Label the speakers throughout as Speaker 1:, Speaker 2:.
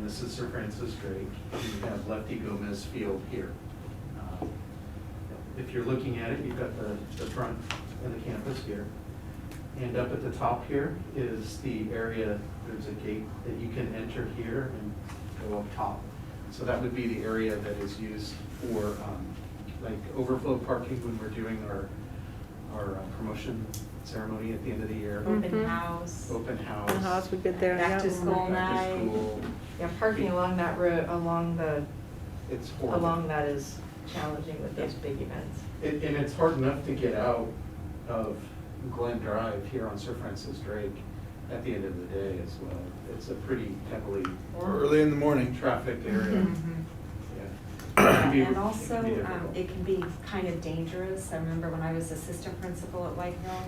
Speaker 1: this is Sir Francis Drake, and you have Lefty Gomez Field here. Um, If you're looking at it, you've got the, the front of the campus here. And up at the top here is the area, there's a gate that you can enter here and go up top. So that would be the area that is used for, um, like, overflow parking when we're doing our, our uh, promotion ceremony at the end of the year.
Speaker 2: Mhm.
Speaker 3: Mm-hmm.
Speaker 4: Open house.
Speaker 1: Open house.
Speaker 2: The house would get there, yeah.
Speaker 4: Back to school
Speaker 1: Back to
Speaker 4: night.
Speaker 1: school.
Speaker 4: Yeah, parking along that road, along the,
Speaker 1: It's horrible.
Speaker 4: along that is challenging with those big events.
Speaker 1: It- And it's hard enough to get out of Glen Drive here on Sir Francis Drake at the end of the day as well. It's a pretty heavily
Speaker 5: Or early in the morning.
Speaker 1: trafficked area.
Speaker 4: Mm-hmm.
Speaker 1: Yeah. It can be-
Speaker 3: Mm-hmm. And
Speaker 1: can
Speaker 3: also,
Speaker 1: be
Speaker 3: um,
Speaker 1: difficult.
Speaker 3: it can be kind of dangerous. I remember when I was assistant principal at White Hill,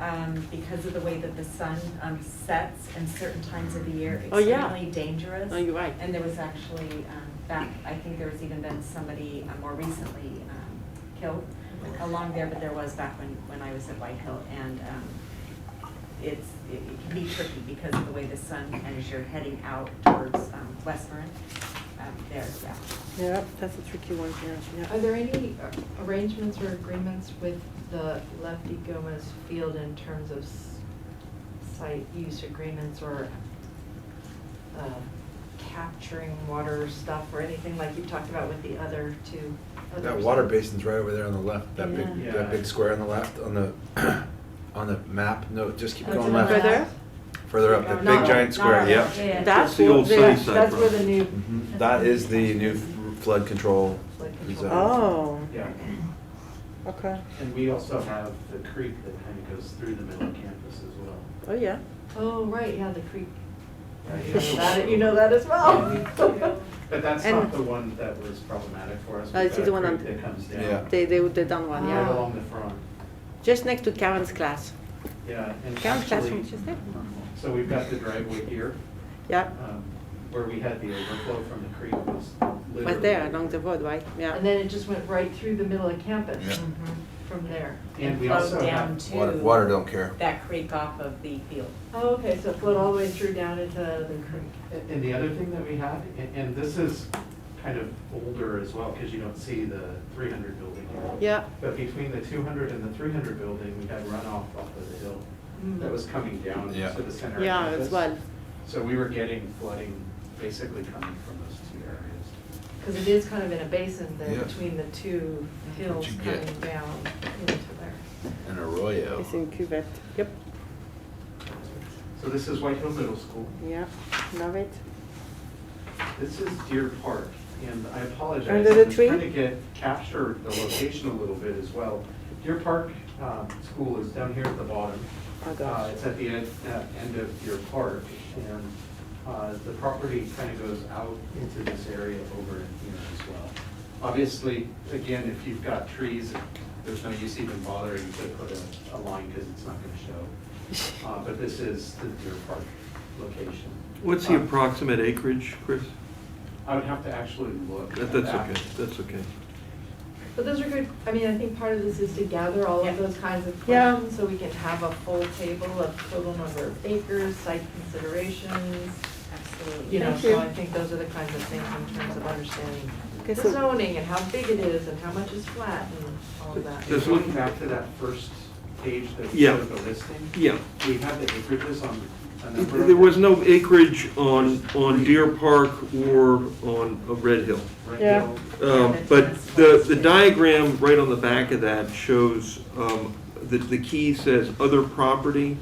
Speaker 3: um, because of the way that the sun, um, sets in certain times of the year,
Speaker 2: Oh, yeah.
Speaker 3: extremely dangerous.
Speaker 2: Oh, you're right.
Speaker 3: And there was actually, um, back, I think there was even been somebody uh, more recently, um, killed along there, but there was back when, when I was at White Hill. And, um, it's, it it can be tricky because of the way the sun, and as you're heading out towards, um, Western, um, there, yeah.
Speaker 2: Yep, that's a tricky one here,
Speaker 4: Are
Speaker 2: yeah.
Speaker 4: there any uh, arrangements or agreements with the Lefty Gomez Field in terms of s- site use agreements or uh, capturing water stuff or anything like you talked about with the other two? other
Speaker 5: That water
Speaker 4: sites?
Speaker 5: basin's right over there on the left, that big,
Speaker 1: Yeah.
Speaker 5: that big square on the left, on the, on the map, no, just keep
Speaker 4: Oh,
Speaker 5: going
Speaker 4: to the
Speaker 2: Over
Speaker 5: left.
Speaker 2: there?
Speaker 5: Further up, the
Speaker 4: Not-
Speaker 5: big giant
Speaker 4: not-
Speaker 5: square, yep.
Speaker 4: yeah, yeah.
Speaker 2: That's
Speaker 6: That's the
Speaker 2: what
Speaker 6: old
Speaker 2: they-
Speaker 6: Sunnyside Road.
Speaker 4: That's where the new.
Speaker 5: Mhm. That is the new flood control
Speaker 4: Flood control.
Speaker 5: zone.
Speaker 2: Oh,
Speaker 1: Yeah,
Speaker 2: okay.
Speaker 1: and we also have the creek that kind of goes through the middle of campus as well.
Speaker 2: Oh, yeah.
Speaker 4: Oh, right, yeah, the creek. You
Speaker 1: Yeah,
Speaker 4: know that-
Speaker 1: yeah.
Speaker 4: You know that as
Speaker 1: Yeah.
Speaker 4: well.
Speaker 1: But that's
Speaker 2: And-
Speaker 1: not the one that was problematic for us.
Speaker 2: Oh,
Speaker 1: We've
Speaker 2: it's
Speaker 1: got
Speaker 2: the
Speaker 1: a
Speaker 2: one on-
Speaker 1: creek That comes
Speaker 5: Yeah.
Speaker 1: down.
Speaker 2: They, they, they done one,
Speaker 1: Right
Speaker 2: yeah.
Speaker 4: Ah.
Speaker 1: along the front,
Speaker 2: Just next to Karen's class.
Speaker 1: yeah, and
Speaker 2: Karen's
Speaker 1: actually,
Speaker 2: classroom is just there.
Speaker 1: so we've got the driveway here,
Speaker 2: Yeah,
Speaker 1: um, where we had the overflow from the creek was literally.
Speaker 2: was there along the road, right? Yeah.
Speaker 4: And then it just went right through the middle of campus
Speaker 5: Yeah.
Speaker 4: from there.
Speaker 1: And we
Speaker 3: Flow
Speaker 1: also
Speaker 3: Oh, down
Speaker 1: have,
Speaker 3: to.
Speaker 5: Water, water don't care.
Speaker 3: That creek off of the field.
Speaker 4: Oh, okay, so it flowed all the way through down into the creek.
Speaker 1: and the other thing that we have, and, and this is kind of older as well, because you don't see the three hundred building here.
Speaker 2: Yeah,
Speaker 1: But between the two hundred and the three hundred building, we had runoff off of the hill that was coming down
Speaker 5: Yeah.
Speaker 1: to the center of
Speaker 2: yeah, as
Speaker 1: campus.
Speaker 2: well.
Speaker 1: So we were getting flooding basically coming from those two areas.
Speaker 4: Because it is kind of in a basin there
Speaker 5: Yeah.
Speaker 4: between the two hills
Speaker 5: you get.
Speaker 4: coming down into there.
Speaker 5: An arroyo.
Speaker 2: It's in cuvette. Yep,
Speaker 1: So this is White Hill Middle School.
Speaker 2: yeah, love it.
Speaker 1: This is Deer Park, and I apologize.
Speaker 2: Under the tree?
Speaker 1: I'm trying to get, capture the location a little bit as well. Deer Park um, School is down here at the bottom.
Speaker 2: Oh,
Speaker 1: Uh,
Speaker 2: gosh.
Speaker 1: It's at the end, uh, end of Deer Park, and uh, the property kind of goes out into this area over in here as well. Obviously, again, if you've got trees, there's no use even bothering to put a, a line because it's not going to show. Uh, But this is the Deer Park location.
Speaker 6: What's the
Speaker 1: Uh,
Speaker 6: approximate acreage, Chris?
Speaker 1: I would have to actually look.
Speaker 6: That-
Speaker 1: at
Speaker 6: That's
Speaker 1: that.
Speaker 6: okay, that's okay.
Speaker 4: But those are good, I mean, I think part of this is to gather all
Speaker 3: Yeah.
Speaker 4: of those kinds of
Speaker 2: Yeah.
Speaker 4: questions so we can have a full table of total number of acres, site considerations.
Speaker 3: Absolutely.
Speaker 4: You know,
Speaker 2: Thank
Speaker 4: so
Speaker 2: you.
Speaker 4: I think those are the kinds of things in terms of understanding
Speaker 2: Okay,
Speaker 4: the
Speaker 2: so-
Speaker 4: zoning and how big it is and how much is flat and all of that.
Speaker 1: Just looking back to that first page that
Speaker 6: Yeah.
Speaker 1: showed the listing,
Speaker 6: Yeah,
Speaker 1: we have the acreages on a number of.
Speaker 6: there was no acreage on, on Deer Park or on uh, Red Hill.
Speaker 1: Right
Speaker 2: Yeah.
Speaker 1: now,
Speaker 6: Um, But the, the diagram right on the back of that shows, um, the, the key says other property.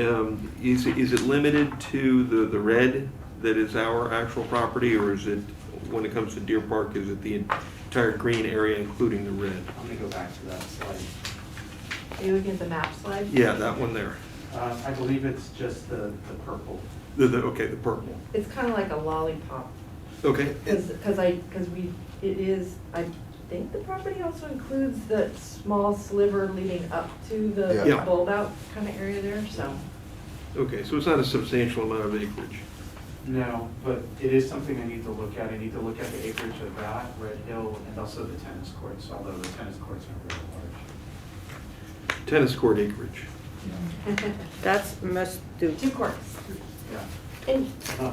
Speaker 6: Um, Is, is it limited to the, the red that is our actual property, or is it, when it comes to Deer Park, is it the entire green area, including the red?
Speaker 1: I'm gonna go back to that slide.
Speaker 4: Are you looking at the map slide?
Speaker 6: Yeah, that one there.
Speaker 1: Uh, I believe it's just the, the purple.
Speaker 6: The, the, okay, the purple.
Speaker 4: It's kind of like a lollipop,
Speaker 6: Okay,
Speaker 4: because I, because we, it is, I think the property also includes the small sliver leading up to
Speaker 5: Yeah.
Speaker 4: the
Speaker 6: Yeah.
Speaker 4: bulb out kind of area there, so.
Speaker 6: okay, so it's not a substantial amount of acreage.
Speaker 1: No, but it is something I need to look at. I need to look at the acreage of that, Red Hill, and also the tennis courts, although the tennis courts are really large.
Speaker 6: Tennis court acreage.
Speaker 2: That's must do.
Speaker 4: Two courts.
Speaker 1: Yeah.
Speaker 4: And
Speaker 1: Not